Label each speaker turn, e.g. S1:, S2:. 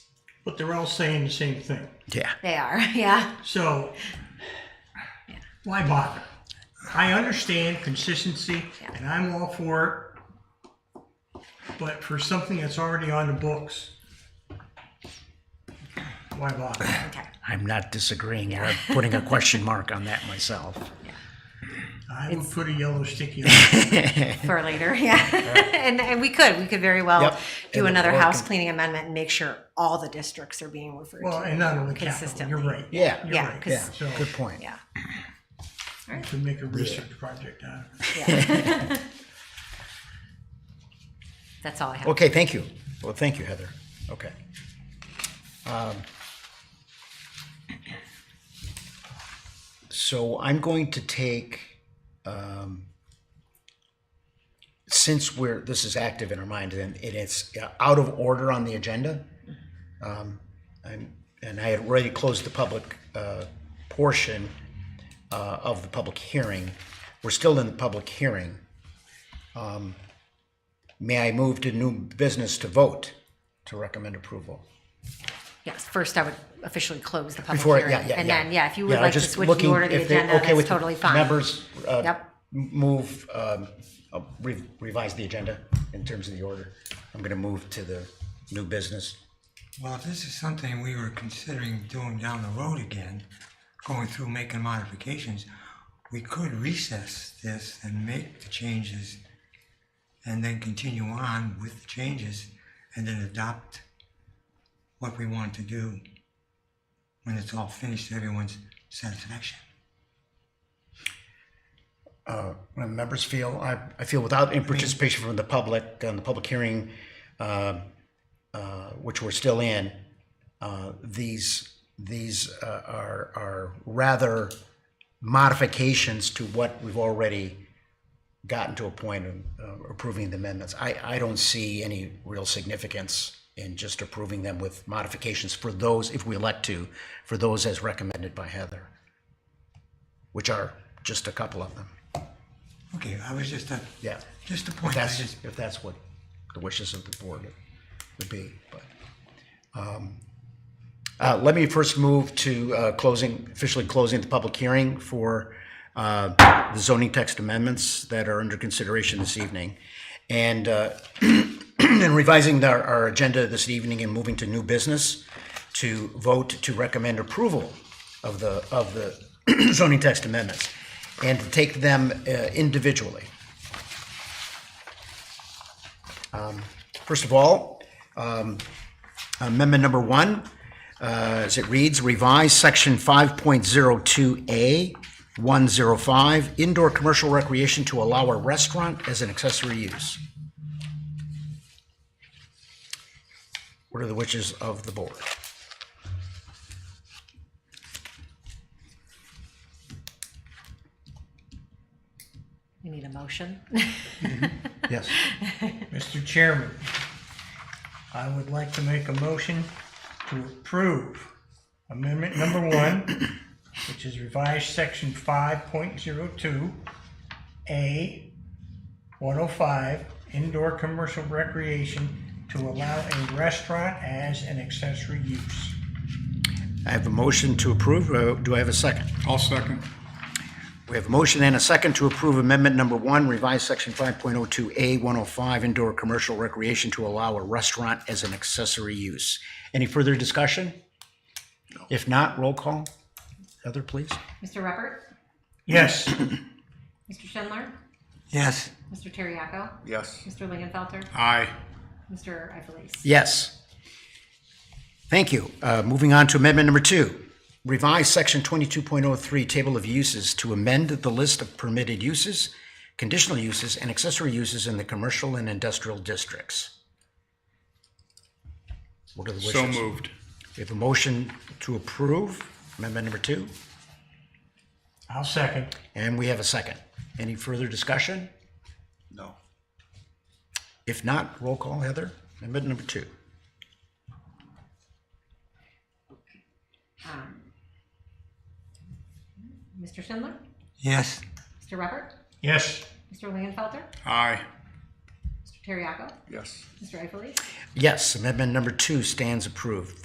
S1: but they're all saying the same thing.
S2: Yeah.
S3: They are, yeah.
S1: So why bother? I understand consistency and I'm all for it, but for something that's already on the books, why bother?
S3: Okay.
S2: I'm not disagreeing. I'm putting a question mark on that myself.
S1: I would put a yellow sticky on it.
S3: For later, yeah. and, and we could, we could very well
S2: Yep.
S3: do
S2: And
S3: another
S2: work
S3: house
S2: on-
S3: cleaning amendment and make sure all the districts are being referred
S1: Well,
S3: to.
S1: and not only capital,
S3: Consistently.
S1: you're right.
S2: Yeah.
S1: You're
S3: Yeah,
S1: right.
S3: 'cause-
S1: So
S2: Good point.
S3: Yeah.
S1: we can make a research project out of it.
S3: yeah. That's all I have.
S2: Okay, thank you. Well, thank you, Heather. Okay. Um, So I'm going to take, um, since we're, this is active in our mind and it is out of order on the agenda. um, And, and I had already closed the public, uh, portion, uh, of the public hearing. We're still in the public hearing. May I move to new business to vote to recommend approval?
S3: Yes, first I would officially close the public
S2: Before,
S3: hearing.
S2: yeah, yeah,
S3: And
S2: yeah.
S3: then, yeah, if you
S2: Yeah,
S3: would
S2: I
S3: like to
S2: just
S3: switch the
S2: looking
S3: order of the
S2: if they're
S3: agenda,
S2: okay
S3: that's
S2: with
S3: totally fine.
S2: Members, uh,
S3: Yep.
S2: m- move, um, uh, re- revise the agenda in terms of the order. I'm gonna move to the new business.
S4: Well, if this is something we were considering doing down the road again, going through making modifications, we could recess this and make the changes and then continue on with the changes and then adopt what we want to do when it's all finished to everyone's satisfaction.
S2: When members feel, I, I feel without in participation from the public, on the public hearing, uh, uh, which we're still in, uh, these, these uh, are, are rather modifications to what we've already gotten to a point of uh, approving the amendments. I, I don't see any real significance in just approving them with modifications for those, if we elect to, for those as recommended by Heather, which are just a couple of them.
S4: Okay, I was just a,
S2: Yeah.
S4: just a point. I
S2: That's,
S4: just-
S2: if that's what the wishes of the board would be, but. um, uh, Let me first move to uh, closing, officially closing the public hearing for uh, the zoning text amendments that are under consideration this evening. And uh, and revising our, our agenda this evening and moving to new business to vote to recommend approval of the, of the zoning text amendments and to take them uh, individually. First of all, um, amendment number one, uh, as it reads, revise section 5.02A 105, indoor commercial recreation to allow a restaurant as an accessory use. What are the wishes of the board?
S3: You need a motion?
S2: Yes.
S1: Mr. Chairman, I would like to make a motion to approve amendment number one, which is revised section five point zero two, A, one oh five, indoor commercial recreation to allow a restaurant as an accessory use.
S2: I have a motion to approve. Uh, Do I have a second?
S5: I'll second.
S2: We have a motion and a second to approve amendment number one, revise section 5.02A 105, indoor commercial recreation to allow a restaurant as an accessory use. Any further discussion? If not, roll call. Heather, please.
S6: Mr. Repert,
S1: Yes,
S6: Mr. Schindler,
S4: Yes,
S6: Mr. Terriaco,
S5: Yes.
S6: Mr. Lingenfelter,
S5: Aye.
S6: Mr. Ifelis.
S2: Yes. Thank you. Uh, Moving on to amendment number two, revise section 22.03, table of uses, to amend the list of permitted uses, conditional uses, and accessory uses in the commercial and industrial districts. What are the wishes?
S5: So moved.
S2: We have a motion to approve amendment number two,
S1: I'll second.
S2: and we have a second. Any further discussion?
S5: No.
S2: If not, roll call, Heather. Amendment number two.
S6: Um, Mr. Schindler,
S4: yes,
S6: Mr. Repert,
S1: Yes,
S6: Mr. Lingenfelter,
S5: Aye.
S6: Mr. Terriaco,
S5: Yes.
S6: Mr. Ifelis.
S2: Yes, amendment number two stands approved.